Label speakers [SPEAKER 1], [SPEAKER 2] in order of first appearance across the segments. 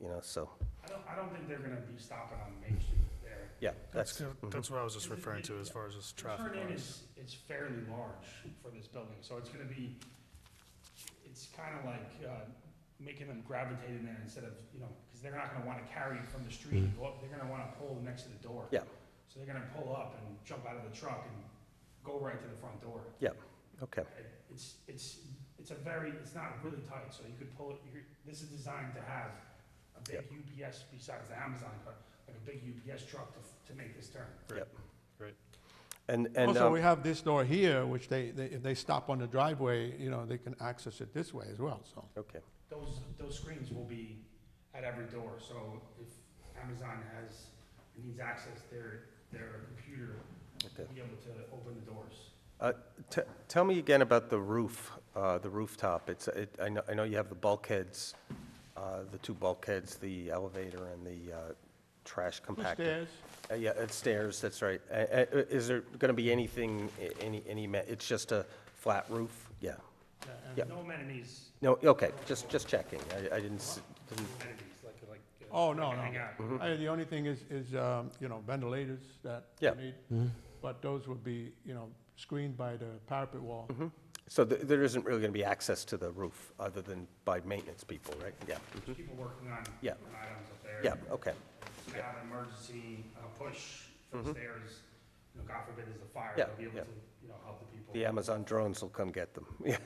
[SPEAKER 1] know, so,
[SPEAKER 2] I don't, I don't think they're gonna be stopping on Main Street there.
[SPEAKER 1] yeah,
[SPEAKER 3] That's,
[SPEAKER 1] that's,
[SPEAKER 3] good.
[SPEAKER 1] mhm.
[SPEAKER 3] that's what I was just referring to as far as just
[SPEAKER 2] The
[SPEAKER 3] traffic
[SPEAKER 2] Turn in
[SPEAKER 3] wise.
[SPEAKER 2] is, is fairly large for this building, so it's gonna be, it's kinda like, uh, making them gravitate in there instead of, you know, cause they're not gonna wanna carry it from the street and
[SPEAKER 3] Mm-hmm.
[SPEAKER 2] go up, they're gonna wanna pull next to the door.
[SPEAKER 1] Yeah.
[SPEAKER 2] So they're gonna pull up and jump out of the truck and go right to the front door.
[SPEAKER 1] okay,
[SPEAKER 2] It- It's, it's, it's a very, it's not really tight, so you could pull it, you could, this is designed to have a big UPS besides the Amazon cart, like a big UPS truck to, f- to make this turn.
[SPEAKER 1] yep.
[SPEAKER 3] Great.
[SPEAKER 1] And, and,
[SPEAKER 4] Also,
[SPEAKER 1] um,
[SPEAKER 4] we have this door here, which they, they, if they stop on the driveway, you know, they can access it this way as well, so.
[SPEAKER 1] okay,
[SPEAKER 2] Those, those screens will be at every door, so if Amazon has, needs access, their, their computer will
[SPEAKER 1] Okay.
[SPEAKER 2] be able to open the doors.
[SPEAKER 1] T- tell me again about the roof, uh, the rooftop. It's, it, I know, I know you have the bulkheads, uh, the two bulkheads, the elevator and the, uh, trash
[SPEAKER 4] Two
[SPEAKER 1] compactor.
[SPEAKER 4] stairs,
[SPEAKER 1] Uh, Yeah, it's stairs, that's right. Uh, uh, Is there going to be anything, a- any, any, ma- it's just a flat roof? Yeah.
[SPEAKER 2] Yeah,
[SPEAKER 1] Yeah.
[SPEAKER 2] and No amenities,
[SPEAKER 1] No, okay, just, just checking. I, I didn't, s- didn't-
[SPEAKER 2] amenities, like, like. uh,
[SPEAKER 4] Oh, no,
[SPEAKER 2] like a
[SPEAKER 4] no.
[SPEAKER 2] hangout.
[SPEAKER 1] Mm-hmm.
[SPEAKER 4] Uh, the only thing is, is, um, you know, ventilators that
[SPEAKER 1] Yeah. Mm-hmm.
[SPEAKER 4] you need, but those would be, you know, screened by the parapet wall.
[SPEAKER 1] Mm-hmm. so th- there isn't really going to be access to the roof other than by maintenance people, right? Yeah, mhm.
[SPEAKER 2] People working on
[SPEAKER 1] Yeah.
[SPEAKER 2] different items up there.
[SPEAKER 1] yeah, okay,
[SPEAKER 2] If you have an emergency uh, push for the stairs, you know, God forbid there's a fire,
[SPEAKER 1] Mm-hmm. Yeah,
[SPEAKER 2] they'll be able
[SPEAKER 1] yeah.
[SPEAKER 2] to, you know, help the people.
[SPEAKER 1] the Amazon drones will come get them. Yeah,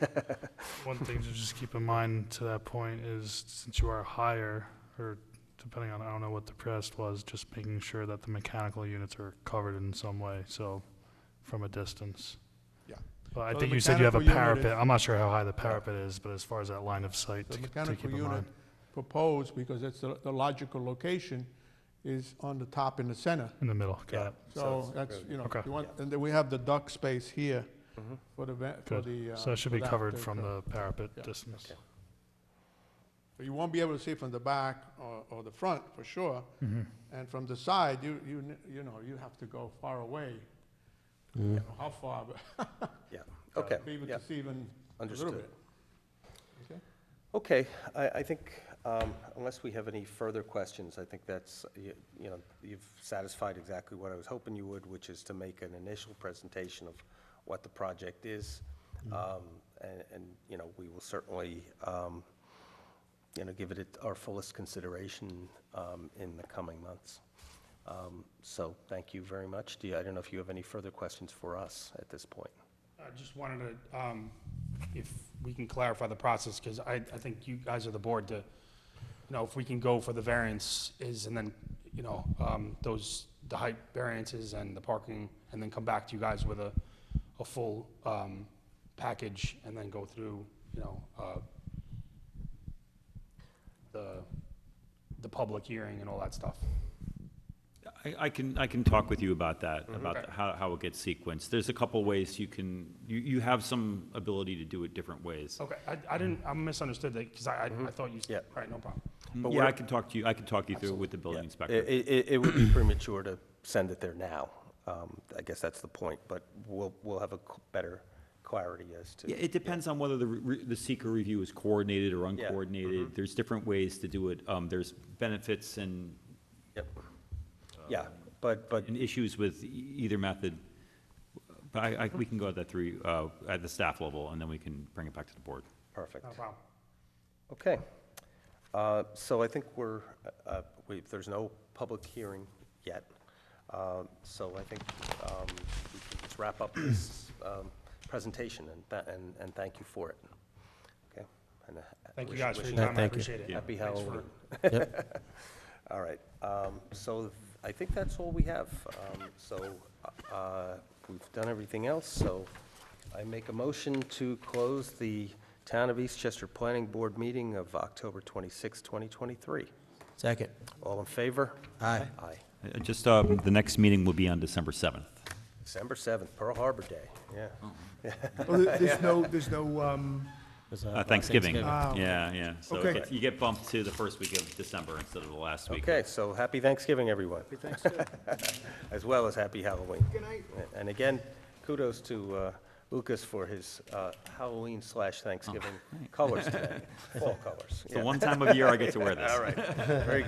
[SPEAKER 3] One thing to just keep in mind to that point is since you are higher, or depending on, I don't know what the press was, just making sure that the mechanical units are covered in some way, so from a distance.
[SPEAKER 4] Yeah.
[SPEAKER 3] But I
[SPEAKER 4] So the
[SPEAKER 3] think you said you have a
[SPEAKER 4] mechanical unit
[SPEAKER 3] parapet.
[SPEAKER 4] is-
[SPEAKER 3] I'm not sure how high the parapet is, but as far as that line of sight to
[SPEAKER 4] The
[SPEAKER 3] to
[SPEAKER 4] mechanical
[SPEAKER 3] keep in mind.
[SPEAKER 4] unit proposed, because it's the the logical location, is on the top in the center.
[SPEAKER 3] In the middle,
[SPEAKER 1] Yeah.
[SPEAKER 3] got it.
[SPEAKER 1] So
[SPEAKER 4] So
[SPEAKER 1] it's
[SPEAKER 4] that's,
[SPEAKER 1] really-
[SPEAKER 4] you know,
[SPEAKER 3] Okay.
[SPEAKER 4] you want, and then we have the duct space here
[SPEAKER 1] Mhm.
[SPEAKER 4] for the, ve- for the.
[SPEAKER 3] Good.
[SPEAKER 4] uh,
[SPEAKER 3] So it should
[SPEAKER 4] for
[SPEAKER 3] be
[SPEAKER 4] that
[SPEAKER 3] covered
[SPEAKER 4] to
[SPEAKER 3] from
[SPEAKER 4] occur.
[SPEAKER 3] the parapet
[SPEAKER 4] Yeah.
[SPEAKER 3] distance.
[SPEAKER 1] Okay.
[SPEAKER 4] You won't be able to see from the back or, or the front, for sure.
[SPEAKER 5] Mm-hmm.
[SPEAKER 3] Mhm.
[SPEAKER 4] And from the side, you, you, kn- you know, you have to go far away. You know, How far, but
[SPEAKER 1] okay,
[SPEAKER 4] be able
[SPEAKER 1] yeah,
[SPEAKER 4] to see even a little
[SPEAKER 1] understood.
[SPEAKER 4] bit. Okay.
[SPEAKER 1] Okay, I, I think, um, unless we have any further questions, I think that's, you you know, you've satisfied exactly what I was hoping you would, which is to make an initial presentation of what the project is.
[SPEAKER 4] Mm-hmm.
[SPEAKER 1] Um, And, and, you know, we will certainly, um, you know, give it it our fullest consideration um, in the coming months. Um, So thank you very much. Do you, I don't know if you have any further questions for us at this point?
[SPEAKER 2] I just wanted to, um, if we can clarify the process, because I, I think you guys are the board to, you know, if we can go for the variance is, and then, you know, um, those, the height variances and the parking, and then come back to you guys with a, a full, um, package, and then go through, you know, uh, the, the public hearing and all that stuff.
[SPEAKER 6] I, I can, I can talk with you about that,
[SPEAKER 1] Mm-hmm.
[SPEAKER 2] Okay.
[SPEAKER 6] about how, how it gets sequenced. There's a couple ways you can, you, you have some ability to do it different ways.
[SPEAKER 1] Oh,
[SPEAKER 2] Okay, I, I didn't, I misunderstood that, because I, I- I thought you,
[SPEAKER 1] Yeah.
[SPEAKER 2] all right, no problem.
[SPEAKER 1] But
[SPEAKER 6] Yeah,
[SPEAKER 1] what-
[SPEAKER 6] I can talk to you, I can talk you through with the building
[SPEAKER 1] Yeah.
[SPEAKER 6] inspector.
[SPEAKER 1] It, it, it would be premature to send it there now. Um, I guess that's the point, but we'll, we'll have a c- better clarity as
[SPEAKER 6] Yeah,
[SPEAKER 1] to,
[SPEAKER 6] it depends on whether the, re- the seeker review is coordinated or
[SPEAKER 1] Mm-hmm.
[SPEAKER 6] uncoordinated. There's different ways to do it. Um, there's benefits and,
[SPEAKER 1] yep. Yeah, but, but,
[SPEAKER 2] Um,
[SPEAKER 6] and issues with e- either method. But I, I, we can go at that through, uh, at the staff level, and then we can bring it back to the board.
[SPEAKER 1] perfect.
[SPEAKER 2] No problem.
[SPEAKER 1] Okay. Uh, So I think we're, uh, we, there's no public hearing yet. Um, So I think um, we can just wrap up this um, presentation and, tha- and, and thank you for it. Okay? And, uh,
[SPEAKER 2] Thank you
[SPEAKER 1] wish-
[SPEAKER 2] guys for your
[SPEAKER 1] wishing-
[SPEAKER 2] time, I
[SPEAKER 7] thank you.
[SPEAKER 2] appreciate it.
[SPEAKER 6] Yeah.
[SPEAKER 1] Happy
[SPEAKER 2] Thanks for-
[SPEAKER 1] Halloween. All right, um, so I think that's all we have. Um, So uh, we've done everything else, so I make a motion to close the Town of Eastchester Planning Board meeting of October 26, 2023.
[SPEAKER 7] Second.
[SPEAKER 1] All in favor?
[SPEAKER 7] Aye.
[SPEAKER 1] Aye.
[SPEAKER 6] Uh, Just, um, the next meeting will be on December seventh.
[SPEAKER 1] December 7th, Pearl Harbor Day, yeah.
[SPEAKER 5] Oh, there- There's no, there's no, um,
[SPEAKER 6] Uh, Thanksgiving,
[SPEAKER 5] Ah, okay.
[SPEAKER 6] yeah, yeah. So it
[SPEAKER 5] Okay.
[SPEAKER 6] gets- you get bumped to the first week of December instead of the last week.
[SPEAKER 1] Okay, so happy Thanksgiving, everyone. Happy Thanksgiving. As well as happy Halloween. Good night. And again, kudos to uh, Lucas for his uh, Halloween slash Thanksgiving
[SPEAKER 6] Oh, thanks.
[SPEAKER 1] colors today, fall colors.
[SPEAKER 6] It's
[SPEAKER 1] yeah.
[SPEAKER 6] the one time of year I get to wear this.
[SPEAKER 1] All right, very